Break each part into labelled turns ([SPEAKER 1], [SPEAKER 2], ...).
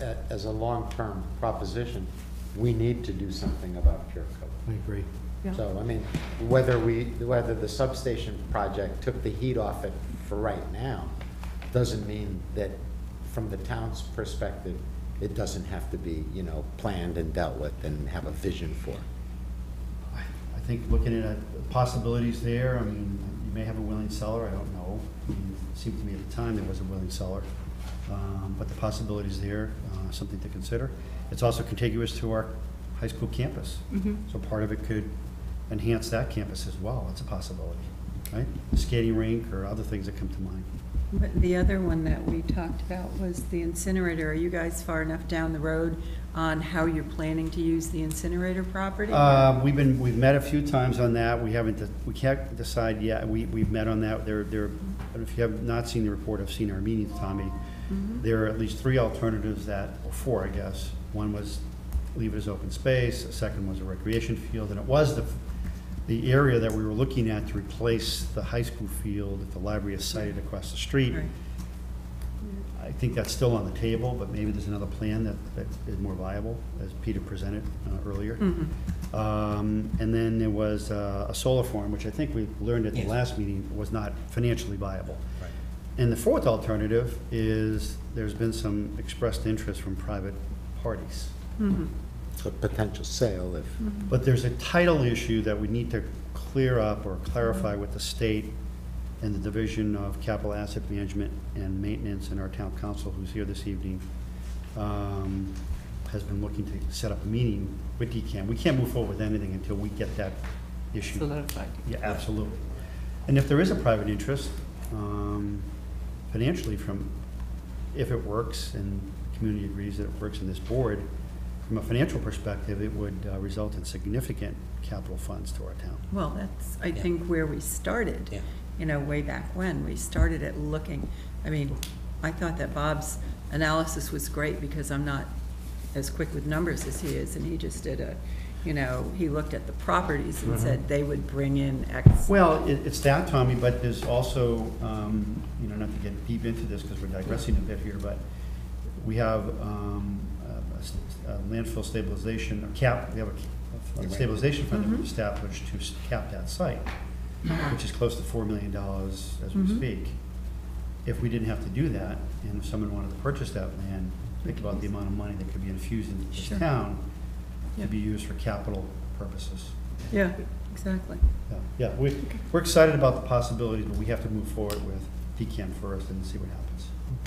[SPEAKER 1] a- as a long-term proposition, we need to do something about pure coat.
[SPEAKER 2] I agree.
[SPEAKER 3] Yeah.
[SPEAKER 1] So, I mean, whether we, whether the substation project took the heat off it for right now, doesn't mean that, from the town's perspective, it doesn't have to be, you know, planned and dealt with and have a vision for.
[SPEAKER 2] I I think looking at the possibilities there, I mean, you may have a willing seller, I don't know. I mean, It seemed to me at the time there was a willing seller. Um, But the possibilities there, uh, something to consider. It's also contiguous to our high school campus. So part of it could enhance that campus as well, it's a possibility, right? Skating rink or other things that come to mind.
[SPEAKER 3] But The other one that we talked about was the incinerator. Are you guys far enough down the road on how you're planning to use the incinerator property?
[SPEAKER 2] Um, We've been, we've met a few times on that. We haven't, de- we can't decide yet. We, we've met on that. There, there, if you have not seen the report, I've seen our meetings, Tommy. There are at least three alternatives that, or four, I guess. One was leave it as open space, a second was a recreation field, and it was the, the area that we were looking at to replace the high school field that the library is sited across the street.
[SPEAKER 3] Right.
[SPEAKER 2] I think that's still on the table, but maybe there's another plan that, that is more viable, as Peter presented uh, earlier. Um, And then there was uh, a solar farm, which I think we learned at the last meeting was not financially viable. And the fourth alternative is, there's been some expressed interest from private parties.
[SPEAKER 1] A potential sale if,
[SPEAKER 2] But there's a title issue that we need to clear up or clarify with the state and the Division of Capital Asset Management and Maintenance and our town council, who's here this evening, um, has been looking to set up a meeting with DECAM. We can't move forward with anything until we get that issue.
[SPEAKER 4] Solidified.
[SPEAKER 2] Yeah, absolutely. And if there is a private interest, um, financially from, if it works and the community agrees that it works in this board, from a financial perspective, it would uh, result in significant capital funds to our town.
[SPEAKER 3] Well, that's, I
[SPEAKER 4] Yeah.
[SPEAKER 3] think, where we started.
[SPEAKER 4] Yeah.
[SPEAKER 3] You know, way back when, we started at looking, I mean, I thought that Bob's analysis was great because I'm not as quick with numbers as he is, and he just did a, you know, he looked at the properties and said they would bring in X.
[SPEAKER 2] Well, it, it's that, Tommy, but there's also, um, you know, not to get deep into this because we're digressing a bit here, but we have, um, a- a s- a landfill stabilization, a cap, we have a- a stabilization fund
[SPEAKER 3] Mm-hmm.
[SPEAKER 2] that we established to s- cap that site,
[SPEAKER 3] Uh-huh.
[SPEAKER 2] which is close to four million dollars as we
[SPEAKER 3] Mhm.
[SPEAKER 2] speak. If we didn't have to do that, and if someone wanted to purchase that land, think about the amount of money that could be infused into this
[SPEAKER 3] Sure.
[SPEAKER 2] town
[SPEAKER 3] Yeah.
[SPEAKER 2] to be used for capital purposes.
[SPEAKER 3] Yeah, exactly.
[SPEAKER 2] Yeah, Yeah, we, we're excited about the possibilities, but we have to move forward with DCAM first and see what happens.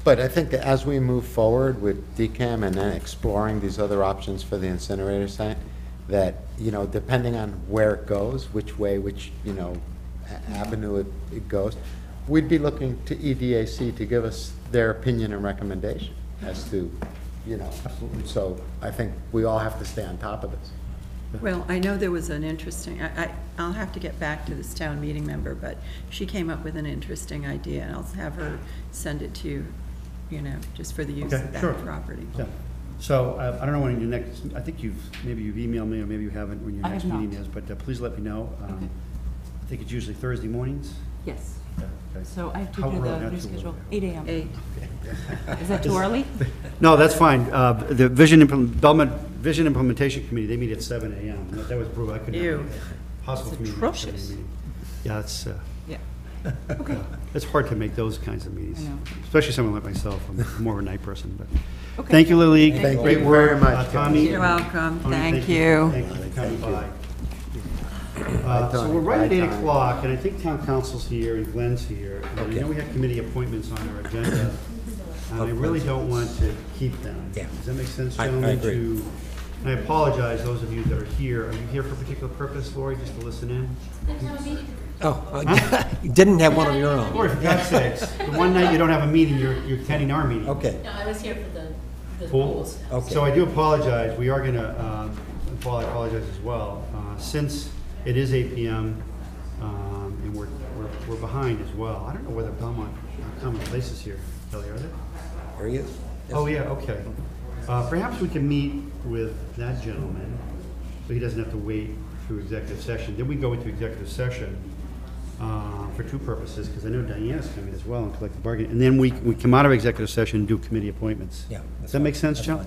[SPEAKER 1] but I think as we move forward with DCAM and then exploring these other options for the incinerator site, that, you know, depending on where it goes, which way, which, you know, a- avenue it, it goes, we'd be looking to E EDAC to give us their opinion and recommendation as to, you know.
[SPEAKER 2] Absolutely.
[SPEAKER 1] So I think we all have to stay on top of this.
[SPEAKER 3] Well, I know there was an interesting, I, I- I'll have to get back to this town meeting member, but she came up with an interesting idea, and I'll have her send it to you, you know, just for the use
[SPEAKER 2] Okay,
[SPEAKER 3] of
[SPEAKER 2] sure.
[SPEAKER 3] that property.
[SPEAKER 2] Yeah. So uh, I, I don't know when your next, I think you've, maybe you've emailed me or maybe you haven't, when your
[SPEAKER 4] I
[SPEAKER 2] next
[SPEAKER 4] have not.
[SPEAKER 2] meeting is, but uh, please let me know. Um,
[SPEAKER 4] Okay.
[SPEAKER 2] I think it's usually Thursday mornings.
[SPEAKER 4] Yes,
[SPEAKER 2] Yeah, okay.
[SPEAKER 4] so I have to
[SPEAKER 2] How
[SPEAKER 4] do
[SPEAKER 2] early?
[SPEAKER 4] the
[SPEAKER 2] Not
[SPEAKER 4] new
[SPEAKER 2] too early.
[SPEAKER 4] schedule, eight AM.
[SPEAKER 3] Eight,
[SPEAKER 4] Is that too early?
[SPEAKER 2] No, that's fine. Uh, The Vision Implement, Belmont Vision Implementation Committee, they meet at seven AM. That- That was brutal, I couldn't.
[SPEAKER 3] Ew.
[SPEAKER 2] Possible
[SPEAKER 4] It's
[SPEAKER 2] for me to make a seven
[SPEAKER 4] atrocious.
[SPEAKER 2] meeting. Yeah, it's, uh,
[SPEAKER 4] Yeah. Okay,
[SPEAKER 2] It's hard to make those kinds of meetings,
[SPEAKER 4] I know.
[SPEAKER 2] especially someone like myself. I'm more of a night person, but,
[SPEAKER 4] Okay.
[SPEAKER 2] thank you, Lily.
[SPEAKER 1] Thank
[SPEAKER 2] Great
[SPEAKER 1] you
[SPEAKER 2] work,
[SPEAKER 1] very much,
[SPEAKER 2] uh,
[SPEAKER 1] guys.
[SPEAKER 2] Tommy.
[SPEAKER 3] You're welcome.
[SPEAKER 2] Tony,
[SPEAKER 3] Thank you.
[SPEAKER 2] Thank you for coming by.
[SPEAKER 1] Bye,
[SPEAKER 2] Uh, So
[SPEAKER 1] Tony.
[SPEAKER 2] we're right at
[SPEAKER 1] Bye,
[SPEAKER 2] eight
[SPEAKER 1] Tony.
[SPEAKER 2] o'clock, and I think town council's here and Glenn's here. And I know we have committee appointments on our agenda, and I really don't want to keep them.
[SPEAKER 5] Yeah.
[SPEAKER 2] Does that make sense,
[SPEAKER 5] I- I
[SPEAKER 2] gentlemen?
[SPEAKER 5] agree.
[SPEAKER 2] to- And I apologize, those of you that are here. Are you here for a particular purpose, Lori, just to listen in?
[SPEAKER 5] Oh, uh, you didn't have one of your
[SPEAKER 2] Or
[SPEAKER 5] own?
[SPEAKER 2] for God's sakes, the one night you don't have a meeting, you're you're attending our meeting.
[SPEAKER 5] Okay,
[SPEAKER 6] No, I was here for the, the
[SPEAKER 2] Cool.
[SPEAKER 6] polls.
[SPEAKER 5] Okay.
[SPEAKER 2] So I do apologize, we are going to, Paul, I apologize as well. Uh, Since it is 8 PM um, and we're, we're we're behind as well, I don't know whether Belmont uh, Common Place is here, Kelly, are they?
[SPEAKER 5] there he is.
[SPEAKER 2] Oh, yeah, okay. Uh, Perhaps we can meet with that gentleman, so he doesn't have to wait through executive session. Then we go into executive session uh, for two purposes, because I know Diana's coming as well and collective bargaining. And then we, we come out of executive session and do committee appointments.
[SPEAKER 5] Yeah, that's
[SPEAKER 2] Does that
[SPEAKER 5] fine.
[SPEAKER 2] make sense,
[SPEAKER 5] That's
[SPEAKER 2] Joe?